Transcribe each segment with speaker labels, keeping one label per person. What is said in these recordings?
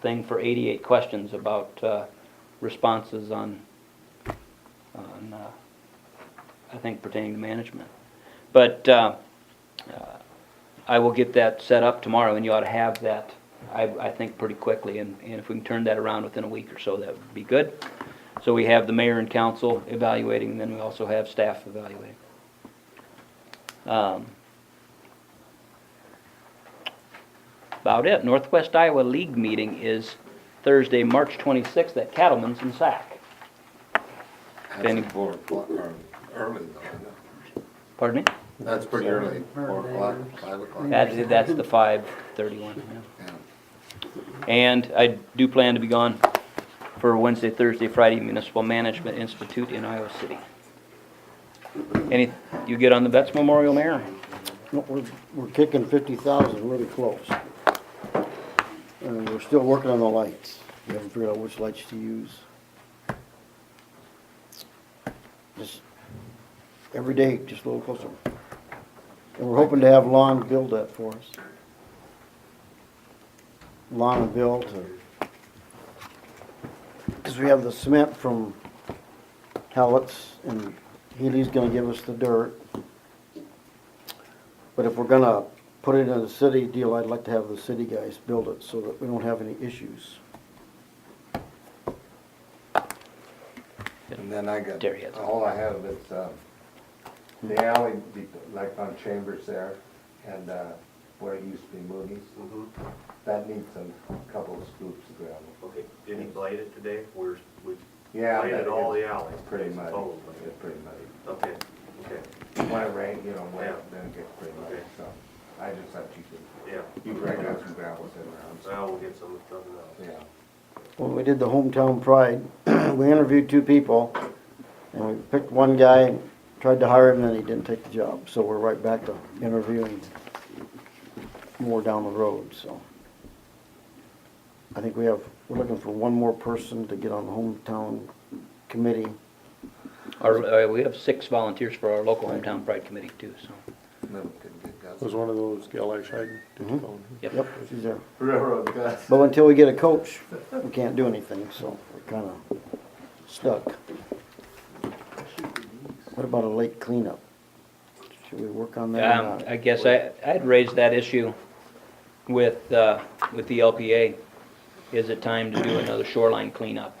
Speaker 1: thing for 88 questions about uh, responses on, on, uh, I think pertaining to management. But uh, uh, I will get that set up tomorrow, and you ought to have that, I, I think, pretty quickly. And and if we can turn that around within a week or so, that would be good. So we have the mayor and council evaluating, and then we also have staff evaluating. Um, About it. Northwest Iowa League meeting is Thursday, March 26th at Cattleman's in Sac. Benny.
Speaker 2: That's four o'clock, or early though, isn't it?
Speaker 1: Pardon me?
Speaker 2: That's pretty early, four
Speaker 3: Or
Speaker 2: o'clock,
Speaker 3: later.
Speaker 2: five o'clock.
Speaker 1: That's, that's the 5:31, yeah.
Speaker 2: Yeah.
Speaker 1: And I do plan to be gone for Wednesday, Thursday, Friday Municipal Management Institute in Iowa City. Any, you get on the Betts Memorial, Mayor?
Speaker 3: No, we're, we're kicking fifty thousand really close. And we're still working on the lights. We haven't figured out which lights to use. Just, every day, just a little closer. And we're hoping to have Lon build that for us. Lon and Bill to, cause we have the cement from Hallett's and Healy's gonna give us the dirt. But if we're gonna put it in a city deal, I'd like to have the city guys build it so that we don't have any issues.
Speaker 2: And then I got,
Speaker 1: There he is.
Speaker 2: all I have is, uh, the alley, be- like on Chambers there, and, uh, where it used to be Moody's. Mm-hmm. That needs a couple of scoops of gravel,
Speaker 4: Okay, did he blade it today? We're, we
Speaker 2: Yeah,
Speaker 4: bladed
Speaker 2: but
Speaker 4: all
Speaker 2: it-
Speaker 4: the alleys.
Speaker 2: pretty
Speaker 4: It's
Speaker 2: muddy,
Speaker 4: total blade.
Speaker 2: it's pretty muddy.
Speaker 4: Okay, okay,
Speaker 2: When it rains, you know, when,
Speaker 4: Yeah.
Speaker 2: then it gets pretty muddy,
Speaker 4: Okay.
Speaker 2: so, I just thought you could,
Speaker 4: yeah.
Speaker 2: you break out some gravel sitting around, so,
Speaker 4: Well, we'll get some of the other now.
Speaker 2: yeah.
Speaker 3: When we did the hometown pride, we interviewed two people, and we picked one guy, and tried to hire him, and then he didn't take the job, so we're right back to interviewing more down the road, so. I think we have, we're looking for one more person to get on the hometown committee.
Speaker 1: Our, uh, we have six volunteers for our local hometown pride committee too, so.
Speaker 2: Little could get guts.
Speaker 5: Was one of those Gail Ash Hagen?
Speaker 3: Mhm. Yep, she's there.
Speaker 2: Railroad guts.
Speaker 3: But until we get a coach, we can't do anything, so we're kinda stuck. What about a lake cleanup? Should we work on that or
Speaker 1: Um,
Speaker 3: not?
Speaker 1: I guess I, I'd raised that issue with, uh, with the LPA. Is it time to do another shoreline cleanup?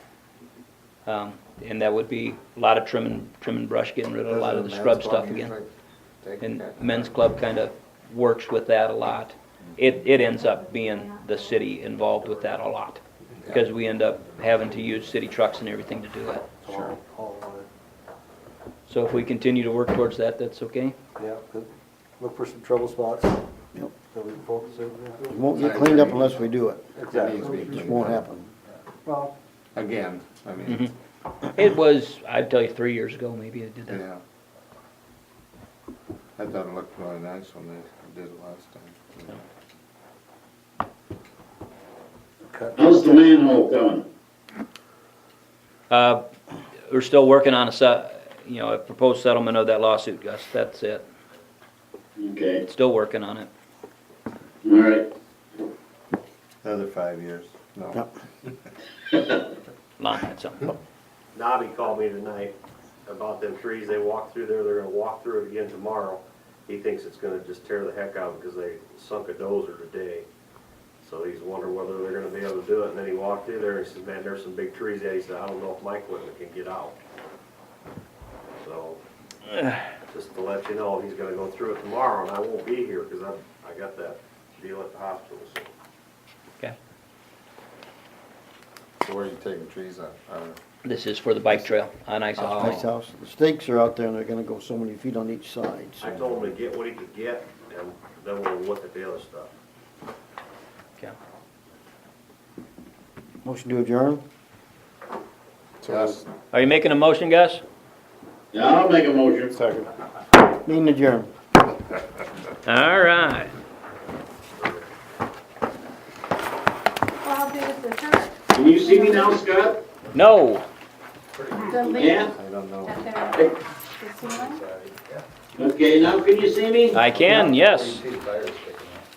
Speaker 1: Um, and that would be a lot of trim and, trim and brush, getting rid of a lot of the
Speaker 2: Doesn't
Speaker 1: scrub
Speaker 2: men's
Speaker 1: stuff
Speaker 2: club
Speaker 1: again.
Speaker 2: usually take
Speaker 1: And
Speaker 2: that?
Speaker 1: men's club kind of works with that a lot. It, it ends up being the city involved with that a lot. Because we end up having to use city trucks and everything to do it.
Speaker 2: Sure.
Speaker 1: So if we continue to work towards that, that's okay?
Speaker 6: Yeah, good. Look for some trouble spots that
Speaker 3: Yep.
Speaker 6: we can focus
Speaker 3: It
Speaker 6: on.
Speaker 3: won't get cleaned up unless we do it.
Speaker 2: It needs to be
Speaker 3: It just
Speaker 2: cleaned
Speaker 3: won't
Speaker 2: up.
Speaker 3: happen.
Speaker 6: Well,
Speaker 2: Again, I mean,
Speaker 1: Mhm. It was, I'd tell you, three years ago, maybe I did that.
Speaker 2: yeah. I thought it looked really nice when they did it last time.
Speaker 6: cut.
Speaker 7: How's the manhole coming?
Speaker 1: Uh, we're still working on a se- you know, a proposed settlement of that lawsuit, Gus, that's it.
Speaker 7: Okay,
Speaker 1: Still working on it.
Speaker 7: all right.
Speaker 2: Another five years, no.
Speaker 3: Yep.
Speaker 1: Lon had something.
Speaker 4: Nobby called me tonight about them trees they walked through there, they're gonna walk through it again tomorrow. He thinks it's gonna just tear the heck out because they sunk a dozer today. So he's wondering whether they're gonna be able to do it, and then he walked through there and he said, man, there's some big trees there, he said, I don't know if my equipment can get out. So, just to let you know, he's gonna go through it tomorrow, and I won't be here because I, I got that deal at the hospital, so.
Speaker 1: Okay.
Speaker 2: So where are you taking trees out? I don't know.
Speaker 1: This is for the bike trail on Ice House.
Speaker 3: Nice house. The stakes are out there and they're gonna go so many feet on each side,
Speaker 4: I
Speaker 3: so.
Speaker 4: told him to get what he could get, and then we'll look at the other stuff.
Speaker 1: Okay.
Speaker 3: Motion to adjourn?
Speaker 2: Yes.
Speaker 1: Are you making a motion, Gus?
Speaker 7: Yeah, I'll make a motion.
Speaker 5: Second.
Speaker 3: Meeting adjourned.
Speaker 1: All right.
Speaker 8: Well, I'll do is the church,
Speaker 7: Can you see me now, Scott?
Speaker 1: No.
Speaker 8: the
Speaker 7: Yeah?
Speaker 8: link
Speaker 2: I don't know.
Speaker 8: at their casino.
Speaker 7: Okay, now can you see me?
Speaker 1: I can, yes.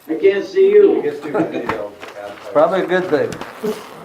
Speaker 7: I can't see you.
Speaker 2: It's too many though. Probably a good thing.